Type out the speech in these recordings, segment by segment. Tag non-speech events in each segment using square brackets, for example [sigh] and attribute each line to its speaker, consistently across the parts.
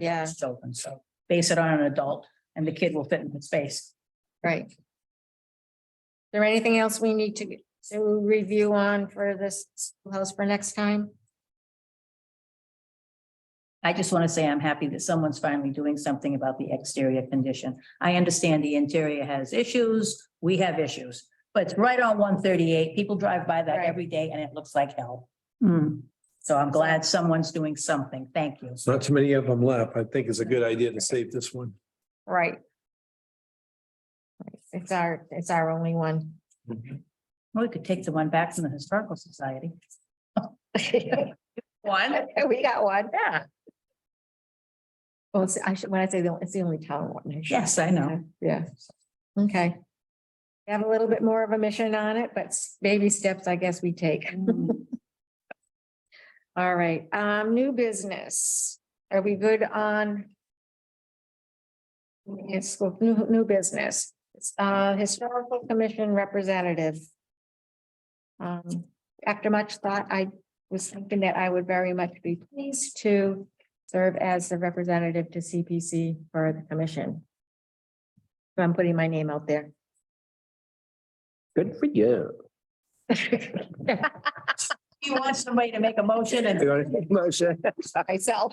Speaker 1: Yeah.
Speaker 2: It's Children, so base it on an adult and the kid will fit in the space.
Speaker 1: Right. Is There anything else we need to, to review on for this house for next time?
Speaker 2: I just want to say I'm happy that someone's finally doing something about the exterior condition. I understand the interior has issues, we have issues. But it's right on one thirty-eight, people drive by that
Speaker 1: Right.
Speaker 2: every day and it looks like hell. Hmm. so I'm glad someone's doing something, thank you.
Speaker 3: It's not too many of them left. I think it's a good idea to save this one.
Speaker 1: Right. Right, It's our, it's our only one.
Speaker 2: Well, We could take the one back from the Historical Society.
Speaker 1: One? [laughs] We got one, yeah. Well, it's- I should, when I say the, it's the only town one. I should-
Speaker 2: Yes, I know.
Speaker 1: Yeah. Okay. We Have a little bit more of a mission on it, but s- baby steps, I guess we take. All right, um, new business. Are we good on? It's school- new, new business. It's, uh, historical commission representative. Um, after much thought, I was thinking that I would very much be pleased to serve as the representative to CPC for the commission. So I'm putting my name out there. [laughs]
Speaker 3: Good for you.
Speaker 2: You want somebody to make a motion and.
Speaker 3: [laughs] Motion.
Speaker 1: Myself.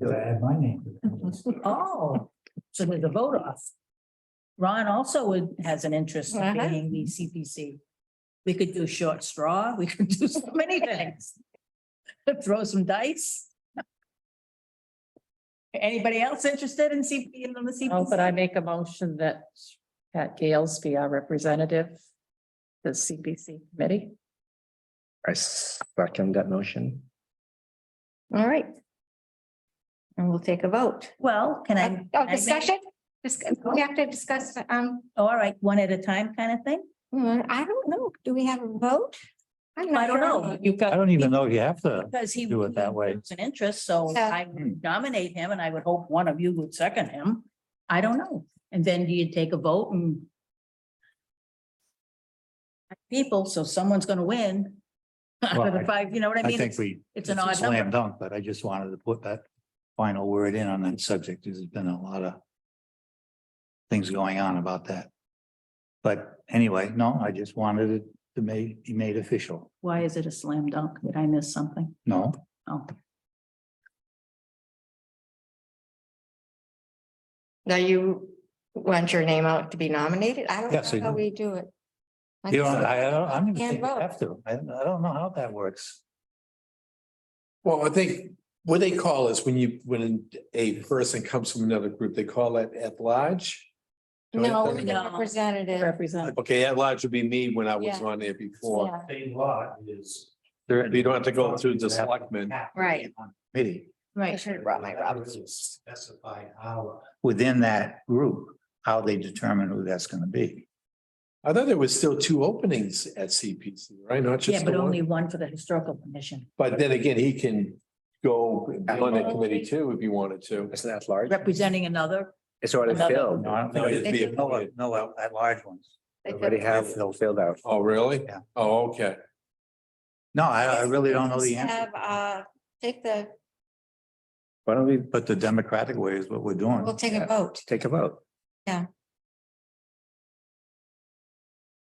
Speaker 3: Do I add my name?
Speaker 2: Oh, so there's a vote off. Ron also would, has an interest in
Speaker 1: Uh-huh.
Speaker 2: being the CPC. We could do short straw, we could do so
Speaker 1: [laughs]
Speaker 2: many things. Throw some dice. Anybody else interested in CP, in the
Speaker 4: Oh, but I
Speaker 2: CPC?
Speaker 4: make a motion that Pat Gales be our representative, to the CPC committee.
Speaker 5: I second that motion.
Speaker 1: All right. And we'll take a vote.
Speaker 2: Well, can I?
Speaker 1: Oh,
Speaker 2: I make-
Speaker 1: discussion? Discuss- We have to discuss, um,
Speaker 2: All right, one at a time kind of thing?
Speaker 1: hmm, I don't know. Do we have a vote? I'm not
Speaker 2: I don't
Speaker 1: sure.
Speaker 2: know.
Speaker 4: You've got,
Speaker 6: I don't even know if you have to.
Speaker 2: Because he.
Speaker 6: Do it that way.
Speaker 2: It's an interest, so
Speaker 1: Yeah.
Speaker 2: I would nominate him and I would hope one of you would second him. I don't know. And then do you take a vote and people, so someone's gonna win. [laughs] Out of
Speaker 6: Well,
Speaker 2: the
Speaker 6: I-
Speaker 2: five, you know what I
Speaker 6: I
Speaker 2: mean?
Speaker 6: think
Speaker 2: It's-
Speaker 6: we.
Speaker 2: it's an
Speaker 6: a
Speaker 2: odd
Speaker 6: Slam
Speaker 2: number.
Speaker 6: dunk, but I just wanted to put that final word in on that subject. There's been a lot of things going on about that. But anyway, no, I just wanted it to ma- be made official.
Speaker 2: Why is it a slam dunk? Did I miss something?
Speaker 6: No,
Speaker 2: Oh,
Speaker 1: Now you want your name out to be nominated? I don't
Speaker 6: Yes, I
Speaker 1: know how
Speaker 6: do.
Speaker 1: we do it.
Speaker 6: you don't, I, I don't, I don't even
Speaker 1: Can't
Speaker 6: think you
Speaker 1: vote.
Speaker 6: have to. I, I don't know how that works.
Speaker 3: Well, I think what they call is when you, when a person comes from another group, they call it at large. Don't
Speaker 1: No,
Speaker 3: have
Speaker 1: we're the
Speaker 2: No.
Speaker 1: representative.
Speaker 4: represent,
Speaker 3: Okay, at large would be me when I was
Speaker 1: Yeah.
Speaker 3: on there before.
Speaker 1: Yeah,
Speaker 7: state law is.
Speaker 3: You don't have to go through the selectmen.
Speaker 1: Right.
Speaker 6: Committee
Speaker 1: I
Speaker 2: right.
Speaker 1: should have brought my Robert's.
Speaker 7: Specify our.
Speaker 6: within that group, how they determine who that's gonna be.
Speaker 3: I thought there was still two openings at CPC, right? Not
Speaker 2: Yeah,
Speaker 3: just
Speaker 2: but
Speaker 3: the
Speaker 2: only
Speaker 3: one.
Speaker 2: one for the historical commission.
Speaker 3: But then again, he can go on that committee too if he wanted to.
Speaker 5: Isn't that large?
Speaker 2: Representing another,
Speaker 5: It's already
Speaker 2: Another-
Speaker 5: filled.
Speaker 6: No, I don't think
Speaker 3: No,
Speaker 6: it
Speaker 3: it'd
Speaker 6: is.
Speaker 3: be
Speaker 6: No,
Speaker 3: appointed.
Speaker 6: no, at large ones.
Speaker 1: They
Speaker 5: Already
Speaker 1: could-
Speaker 5: have filled filled out.
Speaker 3: Oh, really?
Speaker 6: Yeah.
Speaker 3: Oh, okay.
Speaker 6: No, I, I really don't know the answer.
Speaker 1: Have, uh, take the,
Speaker 5: Why don't we
Speaker 6: But the democratic way is what we're doing.
Speaker 1: we'll take a vote.
Speaker 5: take a vote?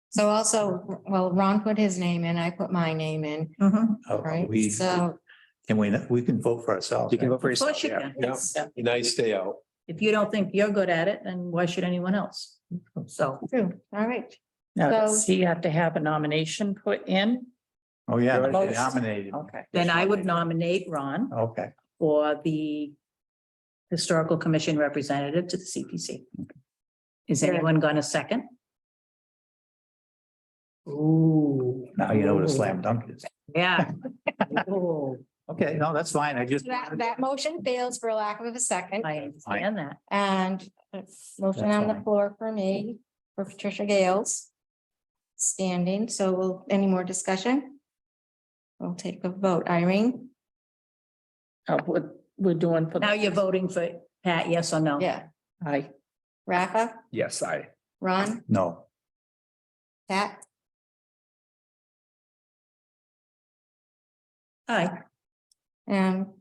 Speaker 1: So also, well, Ron put his name in, I put my name in,
Speaker 2: Mhm.
Speaker 6: Uh,
Speaker 1: right?
Speaker 6: We,
Speaker 1: So,
Speaker 6: can we, we can vote for ourselves.
Speaker 5: You can vote for
Speaker 2: Of course
Speaker 5: yourself.
Speaker 2: you
Speaker 5: yeah.
Speaker 2: can.
Speaker 3: Yeah. Nice day out.
Speaker 2: If you don't think you're good at it, then why should anyone else? So.
Speaker 1: true, all right.
Speaker 4: now, does
Speaker 1: So-
Speaker 4: he have to have a nomination put in?
Speaker 6: Oh, yeah,
Speaker 5: Right.
Speaker 6: they nominated.
Speaker 4: Okay.
Speaker 2: Then I would nominate Ron
Speaker 6: Okay,
Speaker 2: for the Historical Commission Representative to the CPC. Is anyone gonna second? Ooh.
Speaker 6: now you know what a slam dunk is.
Speaker 2: Yeah. Ooh,
Speaker 6: Okay, no, that's fine. I just.
Speaker 1: That, that motion fails for lack of a second
Speaker 2: I understand that.
Speaker 1: and it's motion
Speaker 6: That's
Speaker 1: on the
Speaker 6: fine.
Speaker 1: floor for me, for Patricia Gales. Standing, so we'll, any more discussion? We'll take a vote. Irene?
Speaker 4: Uh, what we're doing for. the-
Speaker 2: Now you're voting for Pat, yes or no?
Speaker 1: Yeah.
Speaker 4: Aye.
Speaker 1: Rafa?
Speaker 5: Yes, I.
Speaker 1: Ron?
Speaker 6: No,
Speaker 1: Pat?
Speaker 2: Aye.
Speaker 1: And